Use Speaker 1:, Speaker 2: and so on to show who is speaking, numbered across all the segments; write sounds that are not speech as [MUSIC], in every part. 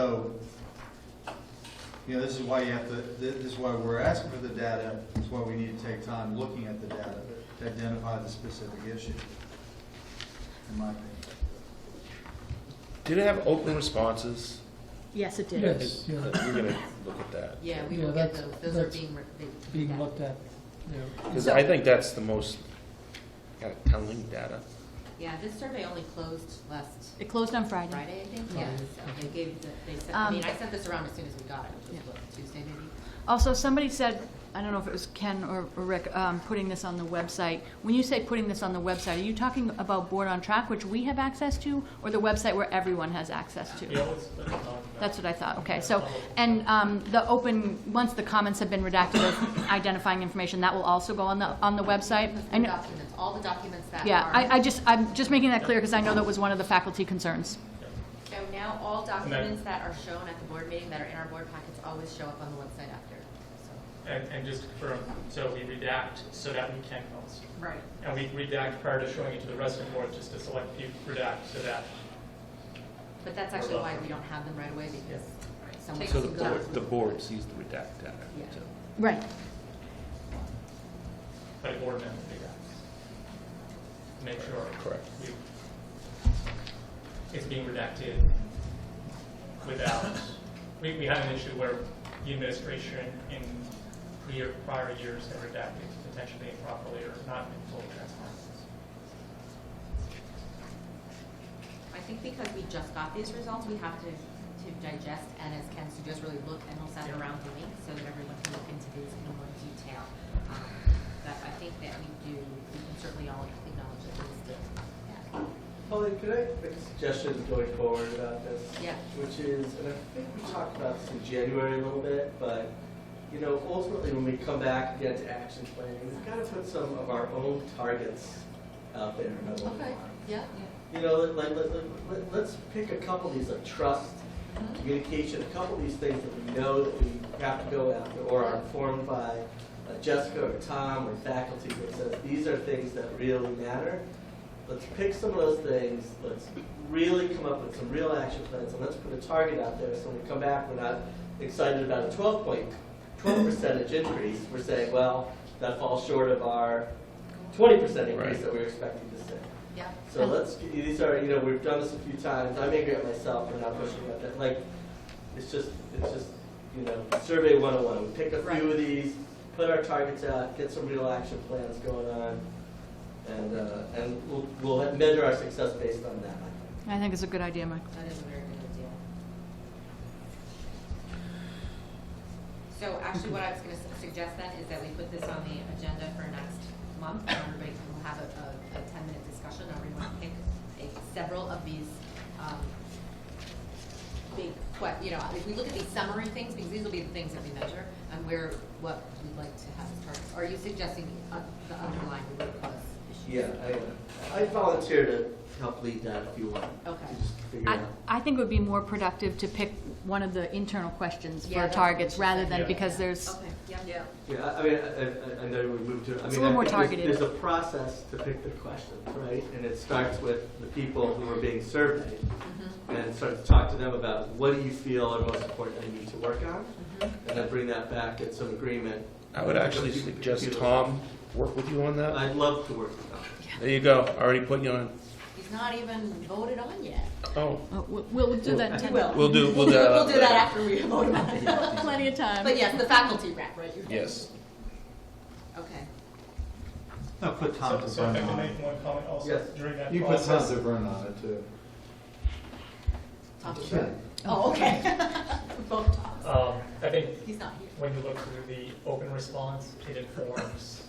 Speaker 1: So, you know, this is why you have to, thi- this is why we're asking for the data, this is why we need to take time looking at the data to identify the specific issue, in my opinion.
Speaker 2: Did it have open responses? uh,
Speaker 3: Yes, it did.
Speaker 4: Yes,
Speaker 2: We're
Speaker 4: yeah,
Speaker 2: gonna look at that.
Speaker 5: Yeah, we
Speaker 4: Yeah,
Speaker 5: will get
Speaker 4: that's-
Speaker 5: those, those are
Speaker 4: that's
Speaker 5: being. re- they-
Speaker 4: being
Speaker 5: yeah.
Speaker 4: looked at, yeah.
Speaker 2: Because I think that's the most kind of telling data.
Speaker 5: Yeah, this survey only closed last
Speaker 3: It closed on Friday.
Speaker 5: Friday, I think, yeah,
Speaker 4: Friday.
Speaker 5: so they gave, the they sent, I
Speaker 3: Um,
Speaker 5: mean, I sent this around as soon as we got it, which
Speaker 3: Yeah.
Speaker 5: was what, Tuesday maybe?
Speaker 3: Also, somebody said, I don't know if it was Ken or or Rick, um, putting this on the website. When you say putting this on the website, are you talking about Board on Track, which we have access to, or the website where everyone has access to?
Speaker 6: Yeah, let's, let's talk about
Speaker 3: That's what I thought, okay, so, and um, the open, once the comments have been redacted of identifying information, that will also go on the, on the website?
Speaker 5: The
Speaker 3: I
Speaker 5: full
Speaker 3: know,
Speaker 5: documents, all the documents that are.
Speaker 3: yeah, I, I just, I'm just making that clear, because I know that was one of the faculty concerns.
Speaker 5: So now all
Speaker 6: then-
Speaker 5: documents that are shown at the board meeting, that are in our board packets, always show up on the website after, so.
Speaker 6: And, and just confirm, so we redact so that we can post.
Speaker 5: Right.
Speaker 6: And we redact prior to showing it to the resident board, just to select few redact so that.
Speaker 5: But that's actually why we don't have them right away, because someone.
Speaker 2: So the
Speaker 5: can go-
Speaker 2: board, the board sees the redact data.
Speaker 5: Yeah.
Speaker 2: too.
Speaker 3: Right.
Speaker 6: But a board member redacts. Make sure.
Speaker 2: Correct.
Speaker 6: we- It's being redacted without, we, we had an issue where the administration in prior, prior years had redacted potentially improperly or not in full transparency.
Speaker 5: I think because we just got these results, we have to, to digest and as Ken suggests, really look and we'll send around the link so that everyone can look into these in more detail. Um, But I think that we do, we can certainly all acknowledge that this is, yeah.
Speaker 7: Holly, could I make a suggestion going forward about this?
Speaker 5: Yeah.
Speaker 7: Which is, and I think we talked about this in January a little bit, but, you know, ultimately, when we come back again to action planning, we've got to put some of our own targets out there. about what we
Speaker 5: Okay,
Speaker 7: want.
Speaker 5: yeah,
Speaker 7: You know, let- like, let, let- let, let's pick a couple of these, like trust, communication, a couple of these things that we know that we have to go after or are informed by uh, Jessica or Tom or faculty that says, these are things that really matter. Let's pick some of those things, let's really come up with some real action plans, and let's put a target out there, so when we come back, we're not excited about a twelve point, twelve percentage increase, we're saying, well, that falls short of our twenty percent increase
Speaker 2: Right.
Speaker 7: that we're expecting to see.
Speaker 5: yeah.
Speaker 7: So let's, these are, you know, we've done this a few times, I'm angry at myself for not pushing about that, like, it's just, it's just, you know, survey one oh one, we pick a few
Speaker 5: Right.
Speaker 7: of these, put our targets out, get some real action plans going on, and, uh, and we'll, we'll measure our success based on that, I think.
Speaker 3: I think it's a good idea, Mike.
Speaker 5: That is a very good idea. So actually, what I was gonna su- suggest then is that we put this on the agenda for next month, and everybody can have a, a, a ten-minute discussion, everyone pick a- several of these, um, big, que- you know, if we look at these summary things, because these will be the things that we measure, and where, what we'd like to have as targets. Are you suggesting the un- the underlying root cause issue?
Speaker 7: Yeah, I, I volunteer to help lead that if you want.
Speaker 5: Okay.
Speaker 7: Just figure it
Speaker 3: I,
Speaker 7: out.
Speaker 3: I think it would be more productive to pick one of the internal questions
Speaker 5: Yeah,
Speaker 3: for
Speaker 5: that's what
Speaker 3: targets,
Speaker 5: we should
Speaker 3: rather
Speaker 5: say.
Speaker 3: than,
Speaker 6: Yeah.
Speaker 3: because there's,
Speaker 5: Okay, yeah. Yeah.
Speaker 7: Yeah, I- I mean, I, I, I know we moved to, I mean.
Speaker 3: It's a little
Speaker 7: I
Speaker 3: more
Speaker 7: think there's-
Speaker 3: targeted.
Speaker 7: There's a process to pick the questions, right? And it starts with the people who are being surveyed
Speaker 5: Mm-hmm,
Speaker 7: and start to talk to them about what do you feel are most important they need to work on?
Speaker 5: mm-hmm.
Speaker 7: And then bring that back at some agreement.
Speaker 2: I would actually suggest Tom work with you on that.
Speaker 7: I'd love to work with them.
Speaker 2: There you go, already put you on.
Speaker 5: He's not even voted on yet.
Speaker 2: Oh,
Speaker 3: Oh, we'll, we'll do that in
Speaker 5: [LAUGHS] He
Speaker 3: ten
Speaker 5: will.
Speaker 2: we'll do, we'll
Speaker 5: We'll
Speaker 2: do.
Speaker 5: do that after we vote on
Speaker 3: [LAUGHS]
Speaker 5: it.
Speaker 3: Plenty of time.
Speaker 5: [LAUGHS] But yes, the faculty rep, right? you're-
Speaker 2: Yes.
Speaker 5: Okay.
Speaker 1: No, put Tom
Speaker 6: So,
Speaker 1: to
Speaker 6: so if
Speaker 1: burn
Speaker 6: I could
Speaker 1: on it.
Speaker 6: make one comment also
Speaker 7: Yes.
Speaker 6: during that
Speaker 1: You put Tom
Speaker 6: process.
Speaker 1: to burn on it too.
Speaker 5: Talk to you. Oh, okay. [LAUGHS] Vote talks.
Speaker 6: Um, I think
Speaker 5: He's not here.
Speaker 6: when you look through the open response, it informs,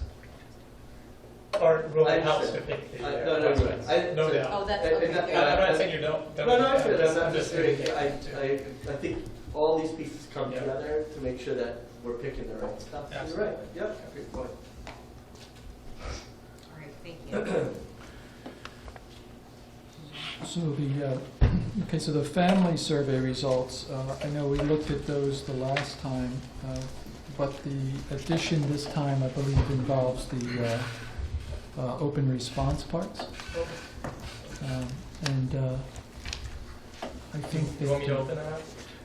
Speaker 6: or really
Speaker 7: I
Speaker 6: helps to
Speaker 7: understand.
Speaker 6: pick the.
Speaker 7: I-
Speaker 6: uh,
Speaker 7: no, no, no.
Speaker 6: prospects.
Speaker 7: I-
Speaker 6: No
Speaker 7: so-
Speaker 6: doubt.
Speaker 5: Oh, that's,
Speaker 7: Uh,
Speaker 5: okay,
Speaker 7: and that-
Speaker 5: good.
Speaker 6: I'm not saying you don't.
Speaker 7: No,
Speaker 6: don't
Speaker 7: no,
Speaker 6: do
Speaker 7: I'm
Speaker 6: that.
Speaker 7: good, I'm not just
Speaker 6: saying
Speaker 7: doing, I, I, I think all these pieces come together to make sure that we're picking the right stuff. You're right, yep, good point.
Speaker 5: All right, thank you.
Speaker 4: So the, uh, okay, so the family survey results, uh, I know we looked at those the last time, uh, but the addition this time, I believe, involves the uh, uh, open response parts. Um, And uh, I think
Speaker 6: You want me to
Speaker 4: that,
Speaker 6: open that?